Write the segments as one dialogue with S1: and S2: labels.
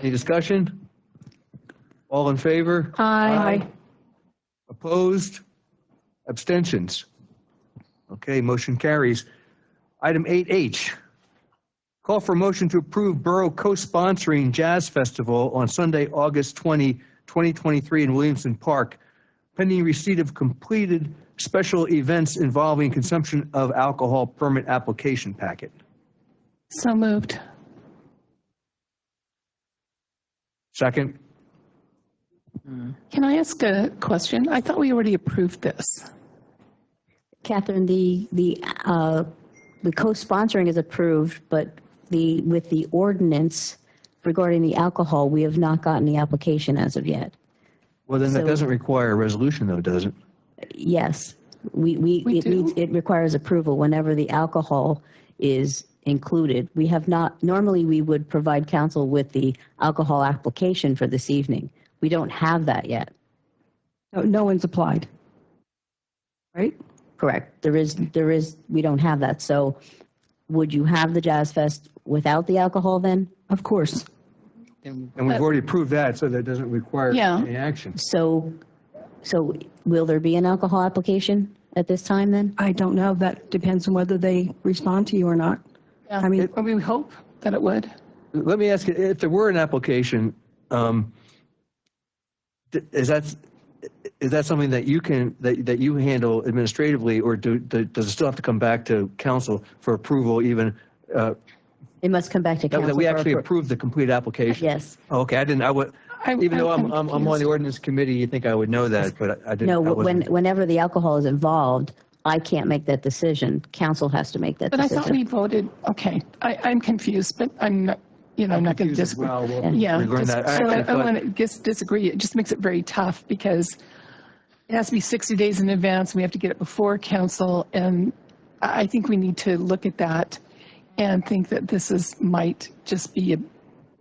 S1: Any discussion? All in favor?
S2: Uh. Aye.
S1: Opposed? Abstentions? Okay, motion carries. Item 8H, call for motion to approve Borough co-sponsoring Jazz Festival on Sunday, August 20, 2023 in Williamson Park, pending receipt of completed special events involving consumption of alcohol permit application packet.
S2: So moved.
S1: Second?
S2: Can I ask a question? I thought we already approved this.
S3: Catherine, the, the, uh, the co-sponsoring is approved, but the, with the ordinance regarding the alcohol, we have not gotten the application as of yet.
S1: Well, then that
S3: So-
S1: doesn't require a resolution though, does it?
S3: Yes, we, we,
S2: We
S3: it needs,
S2: do?
S3: it requires approval whenever the alcohol is included. We have not, normally we would provide council with the alcohol application for this evening. We don't have that yet,
S4: No, no one's applied. Right?
S3: correct? There is, there is, we don't have that. So would you have the Jazz Fest without the alcohol then?
S4: Of course.
S1: And we've already approved that, so that doesn't require
S2: Yeah.
S1: any action.
S3: So, so will there be an alcohol application at this time then?
S4: I don't know. That depends on whether they respond to you or not. I mean,
S2: Or we hope that it would.
S1: Let me ask you, if there were an application, um, th- is that, is that something that you can, that, that you handle administratively, or do, do- does it still have to come back to council for approval even, uh,
S3: It must come back to
S1: that
S3: council.
S1: that we
S3: for
S1: actually
S3: appro-
S1: approve the complete application?
S3: Yes.
S1: Oh, Okay, I didn't, I would,
S2: I-
S1: even though I'm,
S2: I'm-
S1: I'm
S2: I'm
S1: I'm on the
S2: confused.
S1: ordinance committee, you think I would know that, but I I didn't.
S3: No,
S1: I
S3: when,
S1: wasn't-
S3: whenever the alcohol is involved, I can't make that decision. Council has to make that
S2: But I thought we
S3: decision.
S2: voted, okay, I, I'm confused, but I'm not, you know, I'm not going to
S1: confused as
S2: disagree.
S1: well. Well,
S2: Yeah.
S1: we learned
S2: just-
S1: that.
S2: So I-
S1: I- I
S2: I
S1: thought-
S2: want to just disagree. It just makes it very tough because it has to be 60 days in advance. We have to get it before council. And I I think we need to look at that and think that this is, might just be a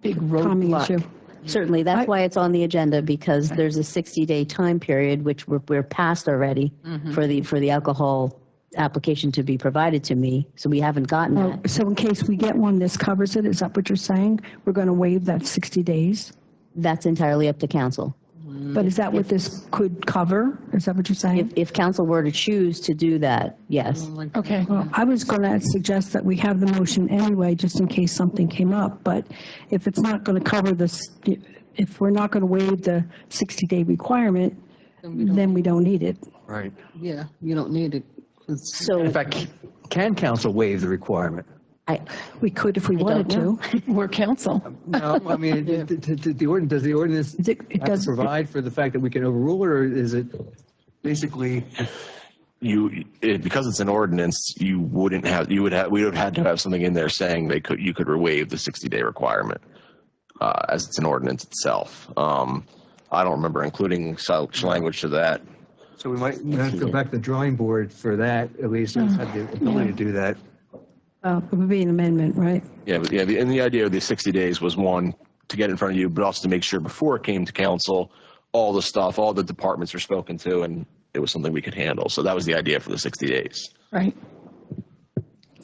S2: big
S4: Tommy issue.
S2: roadblock.
S3: Certainly, that's why it's on the agenda because there's a 60-day time period, which we're, we're past already
S1: Mm-hmm.
S3: for the, for the alcohol application to be provided to me. So we haven't gotten
S4: Oh,
S3: that.
S4: So in case we get one, this covers it. Is that what you're saying? We're going to waive that 60 days?
S3: That's entirely up to council.
S4: But is that what this could cover? Is that what you're
S3: If,
S4: saying?
S3: if council were to choose to do that, yes.
S2: Okay.
S4: I was going to suggest that we have the motion anyway, just in case something came up. But if it's not going to cover this, if we're not going to waive the 60-day requirement, then we don't need it.
S1: Right.
S5: Yeah, you don't need it. It's-
S3: So
S1: In fact, can council waive the requirement?
S3: I,
S4: We could if we wanted to.
S3: know.
S2: We're council.
S1: No, I mean, it- it- it- it- the ordinance, does the ordinance
S4: Is It it
S1: have to
S4: does,
S1: provide for the fact that we can overrule it, or is it basically,
S6: you, it, because it's an ordinance, you wouldn't have, you would have, we would have had to have something in there saying they could, you could waive the sixty day requirement. Uh, as it's an ordinance itself. Um, I don't remember including such language to that.
S1: so we might have to go back to the drawing board for that, at least, and have the ability to do that.
S4: uh, it would be an amendment, right?
S6: Yeah, but yeah, the- and the idea of the sixty days was one, to get in front of you, but also to make sure before it came to council, all the stuff, all the departments were spoken to and it was something we could handle. So that was the idea for the sixty days.
S2: Right.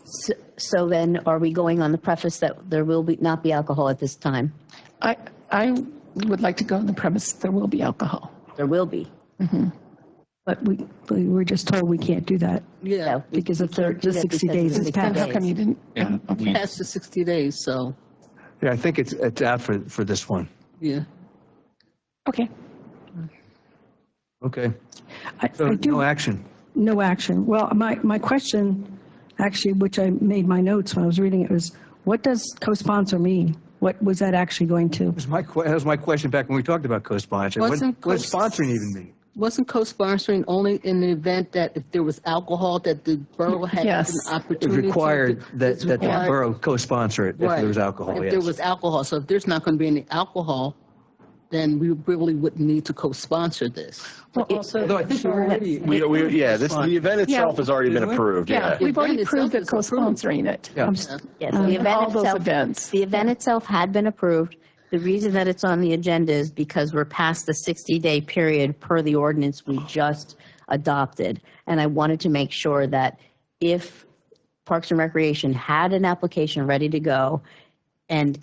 S3: So- So then, are we going on the preface that there will be, not be alcohol at this time?
S2: I, I would like to go on the premise there will be alcohol.
S3: There will be.
S4: But we, we were just told we can't do that
S5: Yeah,
S3: No, we-
S4: because of the
S3: can't do
S4: the
S3: that
S4: 60
S3: because
S4: days
S3: of
S4: is
S3: the
S2: Then
S4: passed.
S2: how come you didn't? uh,
S6: And
S2: yeah, okay.
S6: we-
S5: past the 60 days, so,
S1: Yeah, I think it's, it's out for, for this one.
S5: yeah.
S2: Okay.
S1: Okay,
S4: I
S1: so
S4: I
S1: no
S4: do,
S1: action.
S4: no action. Well, my, my question, actually, which I made my notes when I was reading it, was what does co-sponsor mean? What was that actually going to?
S1: That was my, que- that was my question back when we talked about co-sponsor. What
S5: Wasn't
S1: what does
S5: co-
S1: sponsoring even mean?
S5: Wasn't co-sponsoring only in the event that if there was alcohol, that the borough had an
S2: Yes.
S1: It was
S5: opportunity? to-
S1: required that,
S5: It's
S1: that the
S5: required.
S1: borough co-sponsor it if
S5: Right.
S1: there was alcohol,
S5: If
S1: yes.
S5: there was alcohol, so if there's not going to be any alcohol, then we really wouldn't need to co-sponsor this.
S2: Well, also.
S1: Although I think we already,
S6: We, we, yeah, this, the event itself has already been
S1: Didn't we?
S6: approved,
S2: Yeah,
S6: yeah.
S2: we've already
S5: Event
S2: proved that
S5: itself is approved.
S2: co-sponsoring it.
S1: yeah.
S3: Yes, the
S2: Um, All
S3: event
S2: those
S3: itself,
S2: events.
S3: the event itself had been approved. The reason that it's on the agenda is because we're past the 60-day period per the ordinance we just adopted. And I wanted to make sure that if Parks and Recreation had an application ready to go and